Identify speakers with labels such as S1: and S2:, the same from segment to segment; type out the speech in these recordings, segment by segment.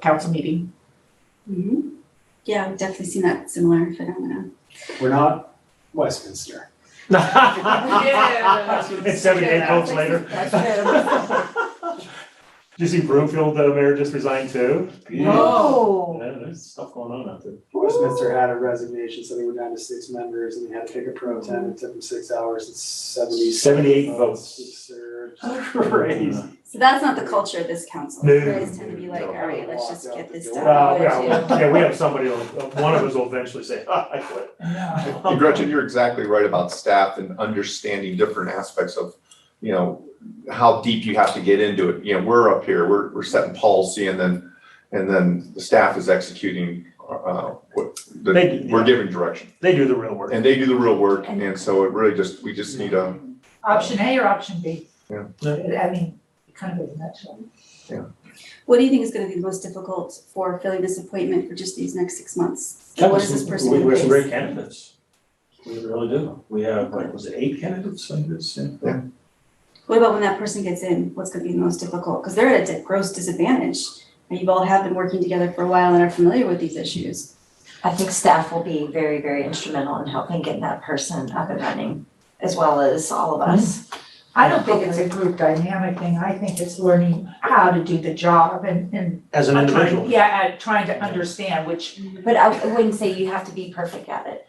S1: council meeting.
S2: Mhm. Yeah, I've definitely seen that similar phenomena.
S3: We're not Westminster.
S4: It's seven, eight votes later. Did you see Broomfield, the mayor just resigned too?
S1: Whoa.
S4: Yeah, there's stuff going on out there.
S3: Westminster had a resignation, so they were down to six members and they had to pick a pro temp. It took them six hours and seventy.
S4: 78 votes.
S3: Absurd. Crazy.
S4: Uh,
S2: So that's not the culture of this council.
S4: No.
S2: You guys tend to be like, all right, let's just get this done.
S4: Uh, yeah, we- yeah, we have somebody, who'll- one of us will eventually say, ah, I quit.
S5: And Gretchen, you're exactly right about staff and understanding different aspects of, you know, how deep you have to get into it. You know, we're up here, we're, we're setting policy and then, and then the staff is executing, uh, what,
S4: They
S5: the,
S4: do, yeah.
S5: we're giving direction.
S4: They do the real work.
S5: And they do the real work. And so it really just, we just need a,
S1: Option A or option B?
S5: Yeah.
S1: I mean, kind of in a nutshell.
S2: What do you think is gonna be the most difficult for filling this appointment for just these next six months?
S6: That
S2: What
S6: was-
S2: is this person
S6: We
S2: gonna
S6: we have some
S2: face?
S6: great candidates. We really do. We have, like, was it eight candidates? I guess, yeah.
S2: What about when that person gets in? What's gonna be the most difficult? Because they're at a di- gross disadvantage. And you all have been working together for a while and are familiar with these issues.
S7: I think staff will be very, very instrumental in helping get that person up and running, as well as all of us.
S1: I don't think it's a group dynamic thing. I think it's learning how to do the job and, and.
S4: As an individual.
S1: Yeah, uh, trying to understand which,
S7: But I I wouldn't say you have to be perfect at it.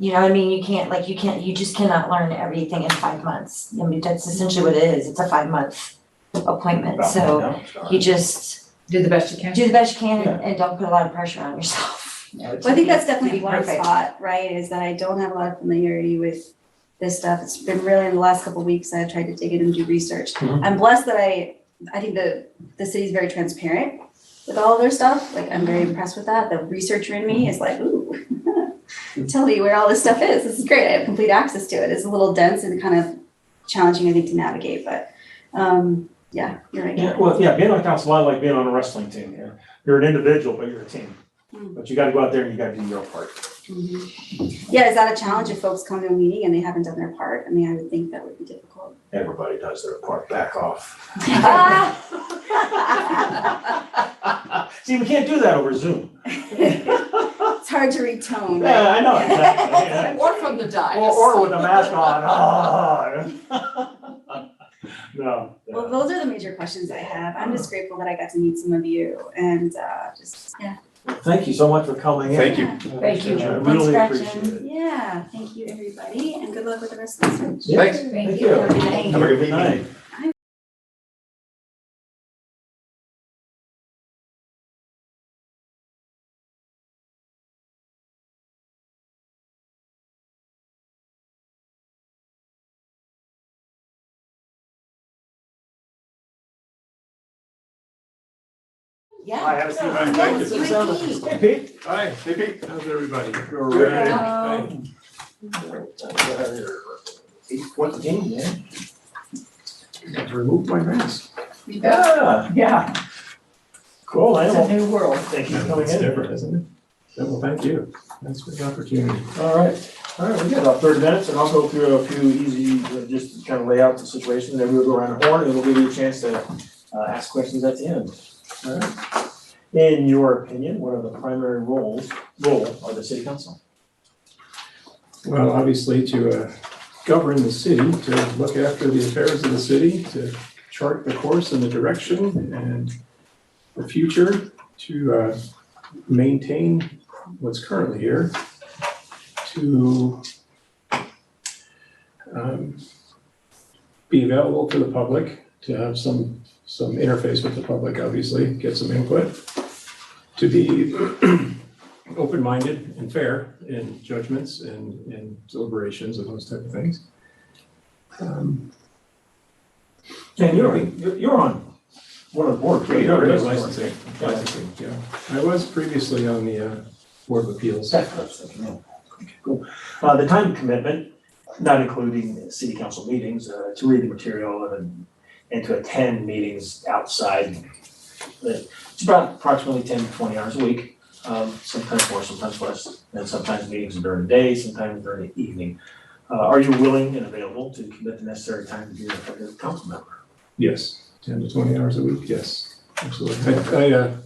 S7: You know what I mean? You can't, like, you can't, you just cannot learn everything in five months. I mean, that's essentially what it is. It's a five-month appointment, so
S6: Yeah, sorry.
S7: you just
S1: do the best you can.
S7: do the best you can and- and don't put a lot of pressure on yourself.
S2: Well, I think that's definitely
S7: Be
S2: one
S7: perfect.
S2: spot, right, is that I don't have a lot of familiarity with this stuff. It's been really in the last couple of weeks, I've tried to dig in and do research.
S4: Mhm.
S2: I'm blessed that I, I think the, the city's very transparent with all of their stuff. Like, I'm very impressed with that. The researcher in me is like, ooh, tell me where all this stuff is. This is great. I have complete access to it. It's a little dense and kind of challenging, I think, to navigate, but, um, yeah, you're right.
S4: Yeah, well, yeah, being on council, I like being on a wrestling team. yeah. You're an individual, but you're a team.
S2: Mm.
S4: But you gotta go out there and you gotta do your part.
S2: Mhm. Yeah, is that a challenge if folks come to a meeting and they haven't done their part? I mean, I would think that would be difficult.
S4: Everybody does their part, back off. See, we can't do that over Zoom.
S2: It's hard to retone.
S4: Yeah, I know, exactly. yeah.
S2: right?
S8: Or from the dais.
S4: Or, or with a mask on, Ah. No. yeah.
S2: Well, those are the major questions I have. I'm just grateful that I got to meet some of you and uh just, yeah.
S6: Thank you so much for coming in.
S5: thank you.
S7: Thank you.
S4: I really
S7: Thanks,
S4: appreciate
S7: Gretchen.
S4: it.
S2: Yeah, thank you, everybody, and good luck with the rest of the search.
S5: Thanks.
S6: Thank you.
S2: Thank
S5: Have a good
S6: Good
S5: evening.
S6: night.
S7: Yeah.
S4: Hi, have a seat, man. Thank you.
S7: Yes, you indeed.
S4: Hey, Pete.
S9: Hi, hey Pete, how's everybody?
S7: Hello.
S6: Eight fourteen, yeah.
S9: Got to remove my mask.
S6: Yeah,
S1: Yeah,
S6: cool,
S1: it's a
S6: animal.
S1: new world.
S4: Thank you for coming
S9: It's
S4: in.
S9: different, isn't it? Well, thank you. Thanks for the opportunity.
S6: All right, all right, we got about thirty minutes and I'll go through a few easy, uh, just to kind of lay out the situation, then we'll go around the horn and we'll give you a chance to uh, ask questions at the end. All right. In your opinion, what are the primary roles, role of the city council?
S9: Well, obviously to uh, govern the city, to look after the affairs of the city, to chart the course and the direction and the future, to uh, maintain what's currently here, to um, be available to the public, to have some, some interface with the public, obviously, get some input, to be open-minded and fair in judgments and, and deliberations and those type of things. Um,
S6: And you're, you're on one of the boards. right?
S9: yeah,
S6: You're a
S9: Licensing, licensing, yeah. I was previously on the uh, Board of Appeals.
S6: That's what I was thinking, yeah. Okay, Cool. Uh, the time commitment, not including city council meetings, uh, to read the material and, and to attend meetings outside. uh, It's about approximately ten to twenty hours a week, um, sometimes more, sometimes less, and sometimes meetings are during the day, sometimes during the evening. Uh, are you willing and available to commit the necessary time to be an effective council member?
S9: Yes, ten to twenty hours a week, yes, absolutely. I, I, uh,